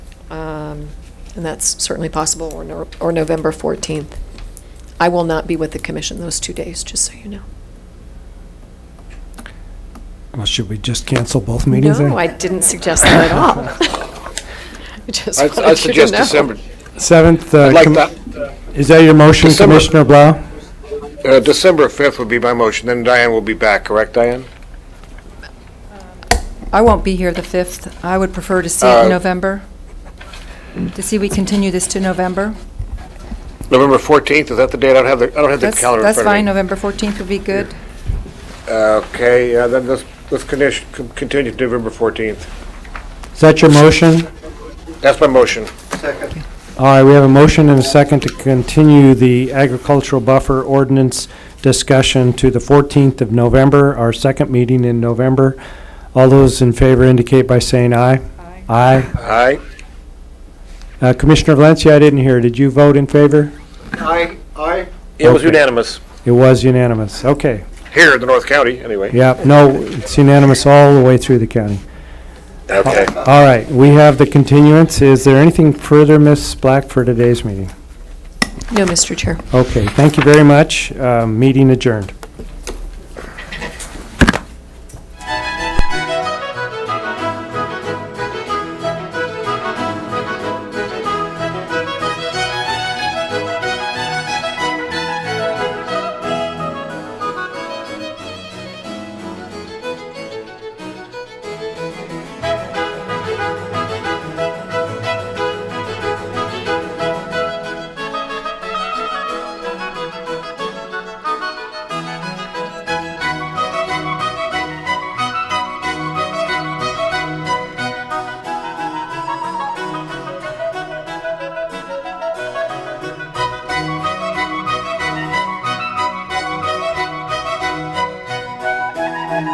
Um, And that's certainly possible, or Nor- or November 14th. I will not be with the commission those two days, just so you know. Well, should we just cancel both meetings then? No, I didn't suggest that at all. I just I wanted you I to suggest know. December, Seventh, uh, I'd like com- that, is that your motion, December. Commissioner Blau? uh, December 5th would be my motion, then Diane will be back, correct, Diane? I won't be here the 5th. I would prefer to see it Uh, in November, to see we continue this to November. November 14th, is that the date? I don't have the, I don't have the That's calendar in that's front of fine, me. November 14th would be good. Okay, uh, then let's, let's condition- con- continue to November 14th. Is that your motion? That's my motion. All right, we have a motion and a second to continue the agricultural buffer ordinance discussion to the 14th of November, our second meeting in November. All those in favor indicate by saying aye. Aye. Aye? Uh, Commissioner Valencia, I didn't hear, did you vote in favor? Aye, aye. It was Okay. unanimous, It was unanimous, okay. here in the North County, anyway. Yeah, no, it's unanimous all the way through the county. Okay. All right, we have the continuance. Is there anything further, Ms. Black, for today's meeting? No, Mr. Chair. Okay, thank you very much. Um, Meeting adjourned.